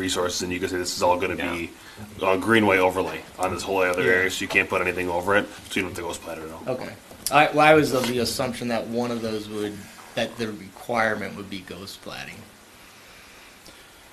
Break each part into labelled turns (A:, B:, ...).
A: resources, and you can say this is all going to be uh, greenway overlay on this whole other area, so you can't put anything over it, so you don't have to go splat it out.
B: Okay. I, well, I was of the assumption that one of those would, that the requirement would be ghost plating.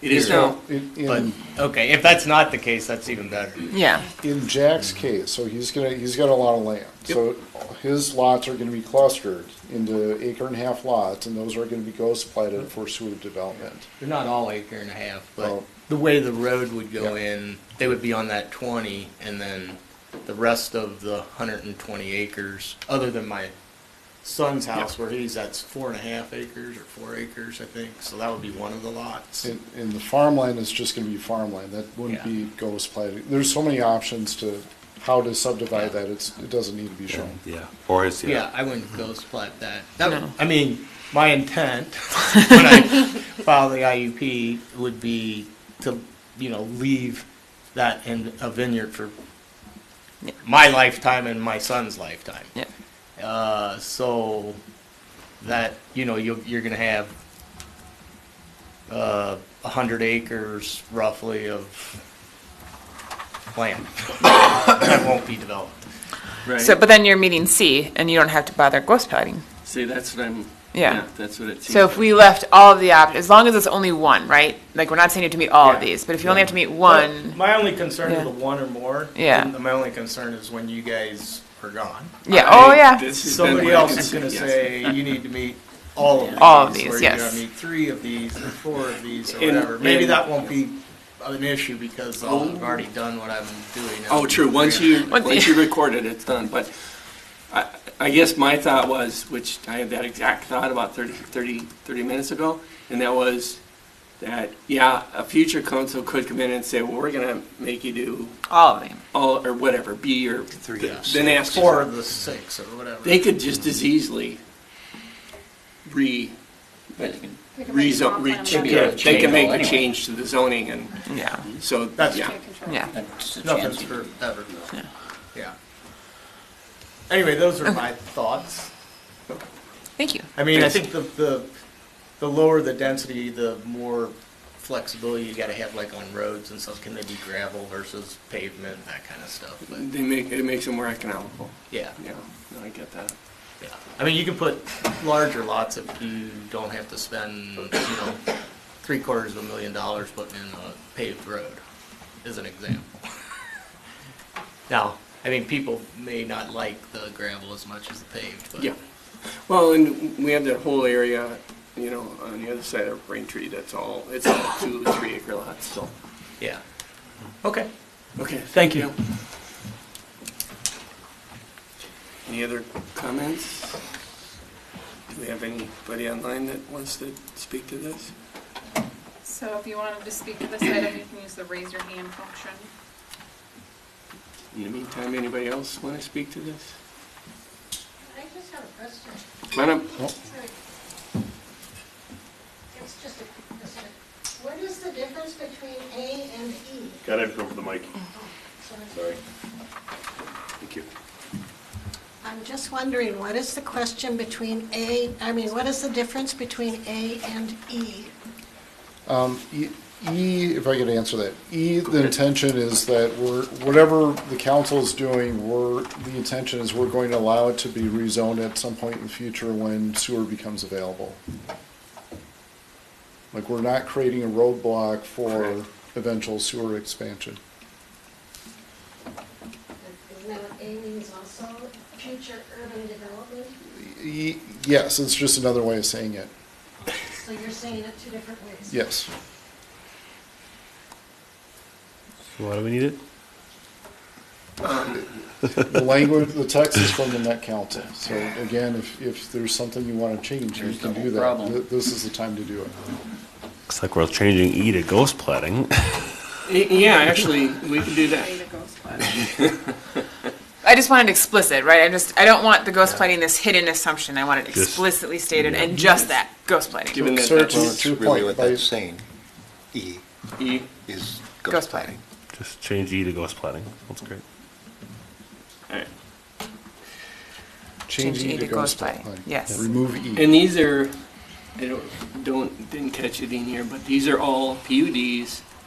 A: It is now.
C: In,
B: But,
C: in,
B: okay, if that's not the case, that's even better.
D: Yeah,
C: in Jack's case, so he's gonna, he's got a lot of land. So his lots are gonna be clustered into acre and a half lots, and those are gonna be ghost
B: Mm-hmm.
C: platted for sewer development.
B: They're not all acre and a half, but
C: Oh.
B: the way the road would go
C: Yeah.
B: in, they would be on that twenty, and then the rest of the hundred and twenty acres, other than my son's house where he's, that's four and a half acres or four acres, I think, so that would be one of the lots.
C: And, and the farmland is just gonna be farmland, that wouldn't
B: Yeah.
C: be ghost platted. There's so many options to how to subdivide that, it's, it doesn't need to be shown.
A: Yeah, or his,
B: Yeah,
A: yeah.
B: I wouldn't ghost plat that. That would-
D: Mm-hmm. No.
B: I mean, my intent when I file the IUP would be to, you know, leave that in a vineyard for
D: Yeah.
B: my lifetime and my son's lifetime.
D: yeah.
B: Uh, so that, you know, you're, you're gonna have uh, a hundred acres roughly of land that won't be developed.
D: So,
E: Right,
D: but then you're meeting C, and you don't have to bother ghost plotting.
E: see, that's what I'm,
D: Yeah.
E: yeah, that's what it seems.
D: So if we left all of the options, as long as it's only one, right? Like, we're not saying you have to meet all of
B: Yeah.
D: these, but if you only have to meet one,
B: My only concern
D: Yeah.
B: is the one or more.
D: Yeah.
B: And My only concern is when you guys are gone.
D: yeah, oh,
E: I-
D: yeah.
E: this has been
B: Somebody
E: my
B: else is
E: concern,
B: gonna
E: yes.
B: say, you need to meet all of these.
D: All of these,
B: or
D: yes.
B: You're gonna meet three of these, or four of these, or
E: And-
B: whatever. Maybe
E: and-
B: that won't be an issue because I'll have already done what I'm doing.
E: Oh, true, once you,
D: Once
E: once
D: you-
E: you record it, it's done, but I, I guess my thought was, which I had that exact thought about 30, 30, 30 minutes ago, and that was that, yeah, a future council could come in and say, well, we're gonna make you do
D: All of them.
E: all, or whatever, B or, then
A: Yeah.
E: ask.
B: Four of the six, or whatever.
E: They could just as easily re,
F: They can make a
E: rezone,
F: comp
E: re,
F: plan
E: change-
F: amendment.
E: they can make a change to the zoning and
D: Yeah,
E: so,
B: That's
E: yeah.
F: Can't control.
D: yeah.
B: Nothing's forever, though.
D: Yeah.
B: Yeah. Anyway, those are my thoughts.
D: Thank you.
B: I mean, I think the, the, the lower the density, the more flexibility you gotta have, like on roads and stuff. Can they be gravel versus pavement, that kind of stuff, but,
E: They make, it makes it more economical.
B: yeah,
E: Yeah, no, I get that.
B: yeah. I mean, you can put larger lots if you don't have to spend, you know, three quarters of a million dollars putting in a paved road, as an example. Now, I mean, people may not like the gravel as much as the paved, but.
E: Yeah. Well, and we have that whole area, you know, on the other side of Braintree, that's all, it's all two, three acre lots, so.
B: Yeah. Okay,
E: Okay,
B: thank you.
E: any other comments? Do we have anybody online that wants to speak to this?
F: So if you wanted to speak to this item, you can use the raise your hand function.
E: In the meantime, anybody else want to speak to this?
G: I just have a question.
E: Come on up.
G: It's just a quick question. What is the difference between A and E?
A: Gotta have to go for the mic.
G: So
A: Sorry. Thank you.
G: I'm just wondering, what is the question between A, I mean, what is the difference between A and E?
C: Um, E- E, if I could answer that, E, the intention is that we're, whatever the council's doing, we're, the intention is we're going to allow it to be rezoned at some point in the future when sewer becomes available. Like, we're not creating a roadblock for eventual sewer expansion.
G: Isn't that what A means also, future urban development?
C: E, yes, it's just another way of saying it.
G: So you're saying it two different ways?
C: Yes.
H: Why do we need it?
C: The language, the text is from the Met Council. So again, if, if there's something you want to change, you can do that. Th- This is the time to do it.
A: Looks like we're changing E to ghost plating.
E: Y- Yeah, actually, we can do that.
F: Way to go, Scott.
D: I just want it explicit, right? I just, I don't want the ghost plotting this hidden assumption. I want it
A: Just-
D: explicitly stated and just that, ghost plotting.
E: Given that
C: Sir,
E: that's
C: to-
I: Well, it's
C: to your
I: really
C: point,
I: what
C: by-
I: that's saying. E
E: E,
I: is
D: Ghost
I: ghost
D: planning.
I: planning.
A: Just change E to ghost plating. That's great.
E: all right.
C: Change E to ghost
D: plotting.
C: plan.
D: Yes.
C: Remove E.
E: And these are, I don't, don't, didn't catch it in here, but these are all PUDs